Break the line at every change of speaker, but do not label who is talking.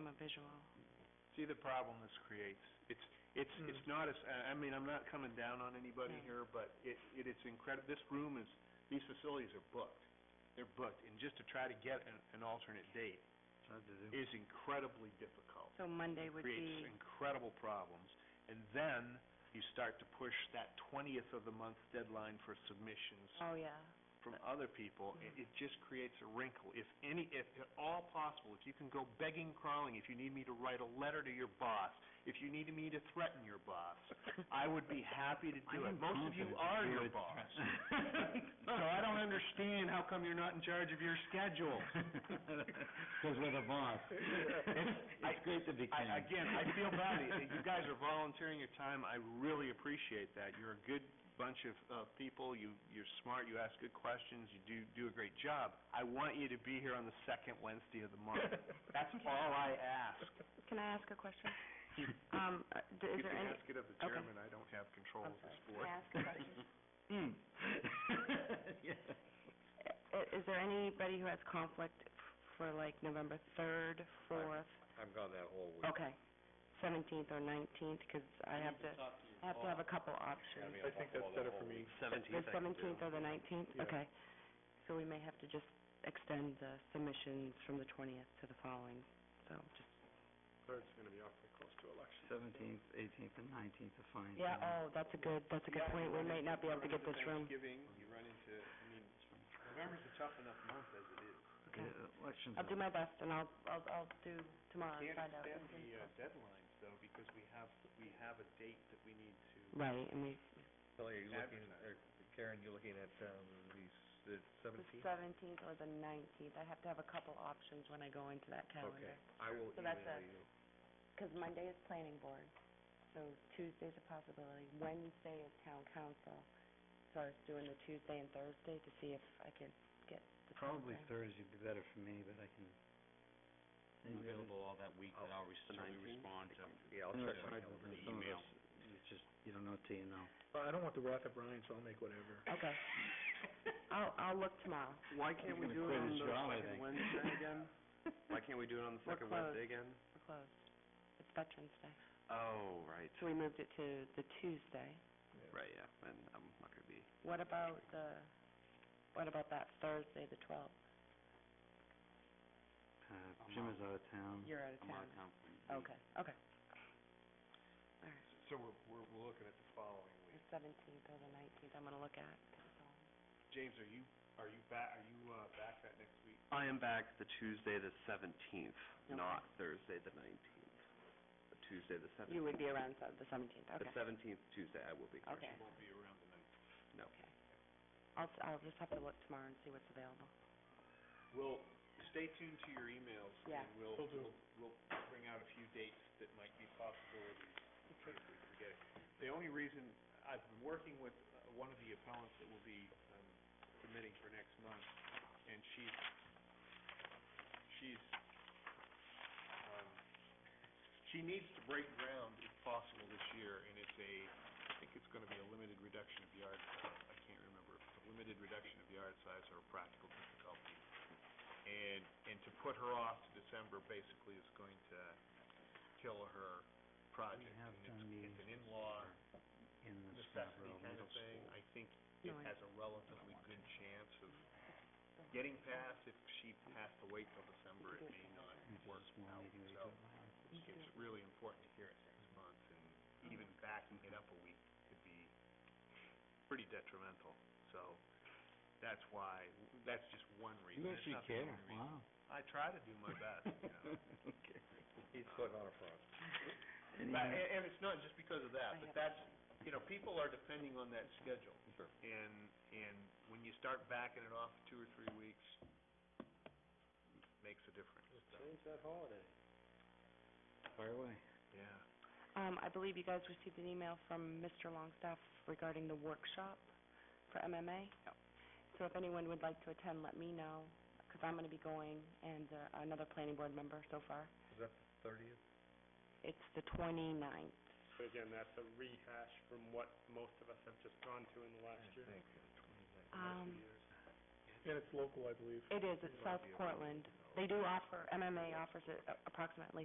individual.
See the problem this creates? It's, it's,
Hmm.
it's not as, I I mean, I'm not coming down on anybody
No.
here, but it, it is incredible, this room is, these facilities are booked. They're booked, and just to try to get an, an alternate date is incredibly difficult.
So Monday would
Creates
be,
incredible problems, and then you start to push that twentieth of the month deadline for submissions
oh, yeah.
from other people, it, it just creates a wrinkle. If any, if at all possible, if you can go begging, crawling, if you need me to write a letter to your boss, if you need me to threaten your boss, I would be happy to do it. Most of you are your boss. So I don't understand how come you're not in charge of your schedule.
Because we're the boss. It's,
I-
it's great to be king.
I, again, I feel bad. You guys are volunteering your time. I really appreciate that. You're a good bunch of, uh people. You, you're smart. You ask good questions. You do, do a great job. I want you to be here on the second Wednesday of the month. That's all I ask.
Can I ask a question?
You
Um, uh, d- is
you
there
can
any,
ask it of the
okay.
chairman. I don't have control
I'm
of
sorry,
this
can I
board.
ask a question?
Hmm. Yeah.
I- i- Is there anybody who has conflict f- for like November third, fourth?
I've gone that whole week.
Okay, seventeenth or nineteenth, because I have to, I have to have a couple options.
I think that's better for me.
The seventeenth or the nineteenth? Okay. So we may have to just extend the submissions from the twentieth to the following, so just.
Third's gonna be awfully close to election.
Seventeenth, eighteenth, and nineteenth are fine.
Yeah, oh, that's a good, that's a good point. We might not be able to get this room.
Thanksgiving, you run into, I mean, November's a tough enough month as it is.
okay.
The Elections.
I'll do my best, and I'll, I'll, I'll do tomorrow and
Can't
find out.
extend the uh, deadlines, though, because we have, we have a date that we need to
Right, and we,
Kelly, are
you looking- or
uh, Karen, you looking at, um, the, the
the seventeenth or the nineteenth, I have to have a couple options when I go into that calendar.
I will
So that's email a- Because Monday is planning board, so Tuesday's a possibility, Wednesday is town council. So I was doing the Tuesday and Thursday to see if I could get the time
Probably
frame.
Thursday would be better for me, but I can. I'm available all that week, but I'll certainly respond to. Oh, Yeah, I'll check my email. It's just, you don't know till you know.
Well, I don't want the wrath of Ryan, so I'll make whatever.
Okay. I'll, I'll look tomorrow.
Why
can't we do it on the second Wednesday
again? Why can't we do it on the
We're second Wednesday
again?
We're closed. It's Veterans Day.
Oh, right,
So we moved it to the Tuesday.
right, yeah, and I'm not gonna be.
What about the, what about that Thursday, the twelfth?
Uh, Jim is out of town.
You're out of town. Okay, okay. All right,
So we're, we're, we're looking at the following
the
week.
seventeenth or the nineteenth, I'm gonna look at. 'cause it's all-
James, are you, are you back, are you, uh, back that next week?
I am back the Tuesday, the seventeenth,
Okay.
not Thursday, the nineteenth. The Tuesday, the seventeenth.
You would be around se- the seventeenth, okay.
The seventeenth, Tuesday, I will be.
Okay.
You won't be around the ninth.
No.
Okay. I'll, s- I'll just have to look tomorrow and see what's available.
Well, stay tuned to your emails,
Yeah.
and we'll, we'll, we'll bring out a few dates that might be possibilities, if we can get it. The only reason, I've been working with uh, one of the appellants that will be um, submitting for next month, and she's, she's, um, she needs to break ground if possible this year, and it's a, I think it's gonna be a limited reduction of yard size, I can't remember, if it's a limited reduction of yard size or a practical difficulty. And, and to put her off to December basically is going to kill her project.
have
And
done
it's,
meetings
it's an in-law
In the
necessity
Scarborough
kind
Middle
of thing.
School.
I think
No,
it
I-
has a relatively good chance of getting passed. If she has to wait till December, it may not
It's
work
a small
out.
meeting we
So
do.
it's really important to hear it next month, and even backing it up a week could be pretty detrimental. So that's why, that's just one reason.
You
It's
actually
not the
care,
only reason.
wow.
I try to do my best, you know.
Okay.
He's putting on a front.
Any other-
But, and, and it's not just because of
I
that, but
have-
that's, you know, people are depending on that schedule.
Sure.
And, and when you start backing it off two or three weeks, makes a difference, so,
that holiday. Fire away.
yeah.
Um, I believe you guys received an email from Mr. Longstaff regarding the workshop for MMA. So if anyone would like to attend, let me know, because I'm going to be going, and uh, another planning board member so far.
Is that the thirtieth?
It's the 29th.
But again, that's a rehash from what most of us have just gone to in the last year.
Um,
And it's local, I believe.
It is, it's South Portland. They do offer, MMA offers it a- approximately